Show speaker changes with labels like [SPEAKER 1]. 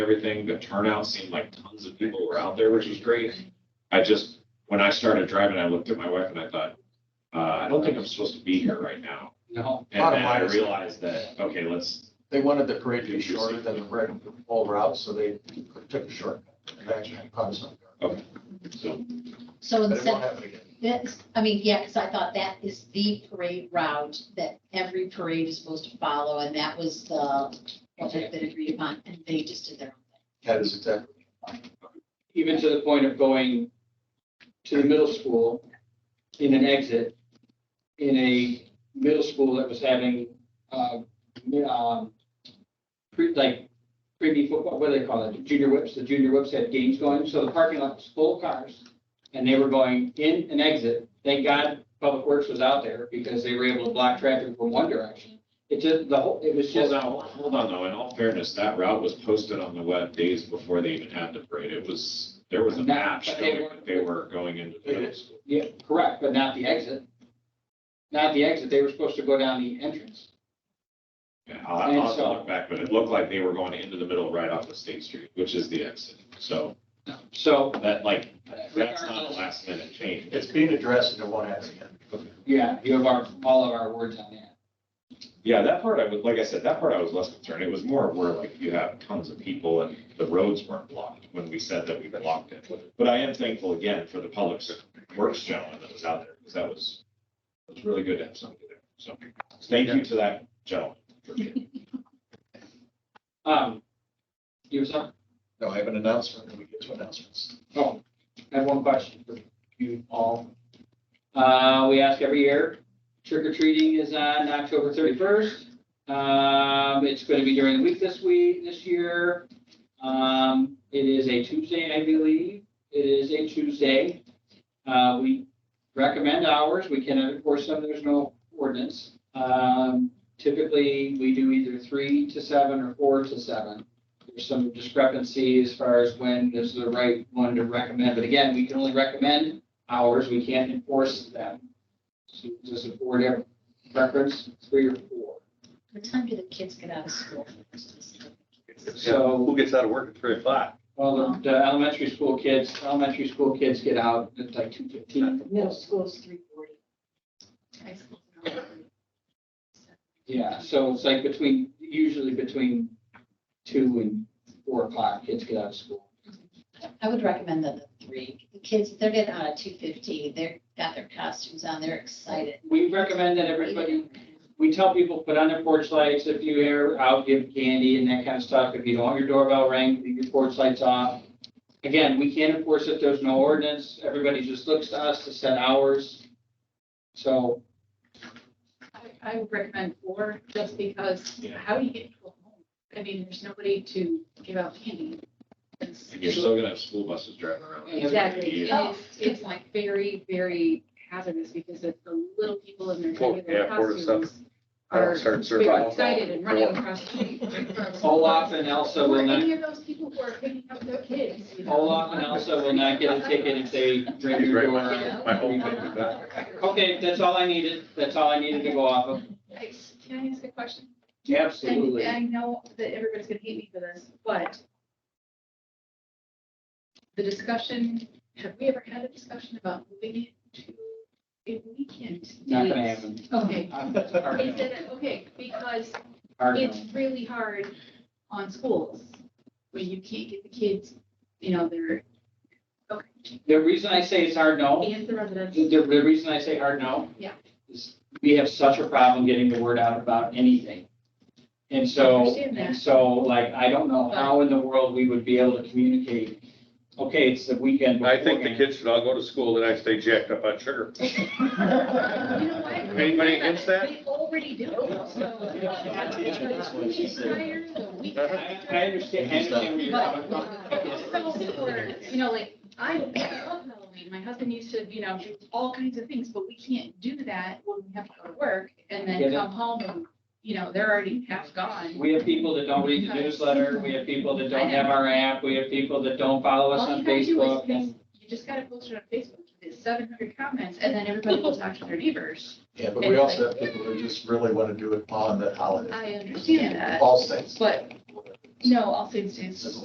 [SPEAKER 1] everything, the turnout seemed like tons of people were out there, which was great. I just, when I started driving, I looked at my wife and I thought, uh, I don't think I'm supposed to be here right now.
[SPEAKER 2] No,
[SPEAKER 1] And then
[SPEAKER 3] Bottom
[SPEAKER 1] I
[SPEAKER 3] line is-
[SPEAKER 1] realized that, okay, let's,
[SPEAKER 3] They wanted the parade to be shorter than the red bull route, so they took a shortcut. and actually caught us off guard.
[SPEAKER 1] so,
[SPEAKER 3] But
[SPEAKER 4] So
[SPEAKER 3] it won't
[SPEAKER 4] instead,
[SPEAKER 3] happen again.
[SPEAKER 4] that's, I mean, yeah, because I thought that is the parade route that every parade is supposed to follow, and that was the, what had been agreed upon, and they just did their own thing.
[SPEAKER 3] That is exactly.
[SPEAKER 2] even to the point of going to the middle school in an exit in a middle school that was having, uh, mi- um, pre, like, pre football, what do they call it? Junior whips, the junior whips had games going, so the parking lot was full of cars. And they were going in and exit. Thank God Public Works was out there because they were able to block traffic from one direction. It just, the whole, it was
[SPEAKER 1] hold
[SPEAKER 2] just,
[SPEAKER 1] on, hold on though, in all fairness, that route was posted on the web days before they even had the parade. It was, there was a map
[SPEAKER 2] But they
[SPEAKER 1] showing that they were going into the middle school.
[SPEAKER 2] yeah, correct, but not the exit. Not the exit. They were supposed to go down the entrance.
[SPEAKER 1] Yeah, I'll I'll have to look back, but it looked like they were going into the middle right off of State Street, which is the exit. So
[SPEAKER 2] So,
[SPEAKER 1] that like, that's not a last minute change.
[SPEAKER 3] It's being addressed and it won't happen again.
[SPEAKER 2] yeah, you have our, all of our words on that.
[SPEAKER 1] Yeah, that part I was, like I said, that part I was less concerned. It was more where like you have tons of people and the roads weren't blocked when we said that we blocked it. But I am thankful again for the public works gentleman that was out there because that was, it was really good to have somebody there. So thank you to that gentleman. for being-
[SPEAKER 2] Um, you were sorry?
[SPEAKER 3] No, I have an announcement. when We get to announcements.
[SPEAKER 2] Oh, I have one question for you all. Uh, we ask every year, trick or treating is on October thirty-first. Um, it's gonna be during the week this week, this year. Um, it is a Tuesday, I believe. It is a Tuesday. Uh, we recommend hours. We can enforce them. There's no ordinance. Um, typically, we do either three to seven or four to seven there's some discrepancy as far as when is the right one to recommend, but again, we can only recommend hours, we can't enforce them. So just a board ever- preference, three or four.
[SPEAKER 4] What time do the kids get out of school?
[SPEAKER 2] So-
[SPEAKER 5] Who gets out of work at three o'clock?
[SPEAKER 2] Well, the- the elementary school kids, elementary school kids get out at like two fifteen.
[SPEAKER 6] Middle school is three forty.
[SPEAKER 4] High school.
[SPEAKER 2] Yeah, so it's like between, usually between two and four o'clock, kids get out of school.
[SPEAKER 4] I would recommend that the three, the kids, they're getting out at two fifty, they're got their costumes on, they're excited.
[SPEAKER 2] We recommend that everybody we tell people, put on their porch lights if you are out, give candy and that kind of stuff. If you don't want your doorbell ring, leave your porch lights off. Again, we can't enforce it. There's no ordinance. Everybody just looks to us to set hours. So,
[SPEAKER 7] I- I would recommend four, just because
[SPEAKER 1] Yeah.
[SPEAKER 7] how do you get people home? I mean, there's nobody to give out candy. It's-
[SPEAKER 1] And you're still gonna have school buses driving around.
[SPEAKER 7] Exactly.
[SPEAKER 1] Yeah.
[SPEAKER 7] It's, it's like very, very hazardous because it's the little people in their
[SPEAKER 5] Four-
[SPEAKER 7] regular
[SPEAKER 5] yeah, four to
[SPEAKER 1] uh,
[SPEAKER 7] costumes
[SPEAKER 5] I'll
[SPEAKER 7] are
[SPEAKER 5] start serving
[SPEAKER 7] very
[SPEAKER 5] alcohol.
[SPEAKER 7] excited and running across the street.
[SPEAKER 2] Olaf and Elsa
[SPEAKER 7] Or
[SPEAKER 2] will not,
[SPEAKER 7] any of those people who are picking up their kids. you know.
[SPEAKER 2] Olaf and Elsa will not get a ticket if they ring your
[SPEAKER 5] Right,
[SPEAKER 2] door.
[SPEAKER 7] Yeah.
[SPEAKER 5] My whole thing with
[SPEAKER 4] Oh,
[SPEAKER 5] that.
[SPEAKER 2] Okay, that's all I needed. That's all I needed to go off of.
[SPEAKER 7] Hey, Can I ask a question?
[SPEAKER 2] Absolutely.
[SPEAKER 7] And I know that everybody's gonna hate me for this, but the discussion, have we ever had a discussion about moving it to a weekend?
[SPEAKER 2] Not gonna
[SPEAKER 7] date?
[SPEAKER 2] happen.
[SPEAKER 7] Okay,
[SPEAKER 2] Hard
[SPEAKER 7] Is
[SPEAKER 2] no.
[SPEAKER 7] it- okay, because
[SPEAKER 2] Hard no.
[SPEAKER 7] it's really hard on schools when you can't get the kids, you know, they're,
[SPEAKER 2] The reason I say it's hard no
[SPEAKER 7] and the residents.
[SPEAKER 2] The, the the reason I say hard no.
[SPEAKER 7] Yeah.
[SPEAKER 2] Is we have such a problem getting the word out about anything. And
[SPEAKER 7] I
[SPEAKER 2] so,
[SPEAKER 7] understand that.
[SPEAKER 2] and so like, I don't know how in the world we would be able to communicate, okay, it's the weekend.
[SPEAKER 5] I think the
[SPEAKER 2] beforehand.
[SPEAKER 5] kids should all go to school the next day jacked up on sugar.
[SPEAKER 7] You know what?
[SPEAKER 5] Anybody against that?
[SPEAKER 7] They already do, so.
[SPEAKER 3] That's what she said.
[SPEAKER 7] Prior to the weekend.
[SPEAKER 2] I, I understand, I understand where you're coming from.
[SPEAKER 7] You know, like, I love Halloween, my husband used to, you know, do all kinds of things, but we can't do that when we have to go to work and
[SPEAKER 2] Get
[SPEAKER 7] then
[SPEAKER 2] it.
[SPEAKER 7] come home and, you know, they're already half gone.
[SPEAKER 2] We have people that don't read the newsletter, we have people that don't have our app, we have people that don't follow us
[SPEAKER 7] All you
[SPEAKER 2] on
[SPEAKER 7] gotta do is,
[SPEAKER 2] Facebook.
[SPEAKER 7] post- you just gotta post it on Facebook, it's seven hundred comments, and then everybody will talk to their neighbors.
[SPEAKER 3] Yeah, but we also have people who just really want to do it on the holiday.
[SPEAKER 7] I understand that,
[SPEAKER 3] All states.
[SPEAKER 7] but, no, All Saints Day is just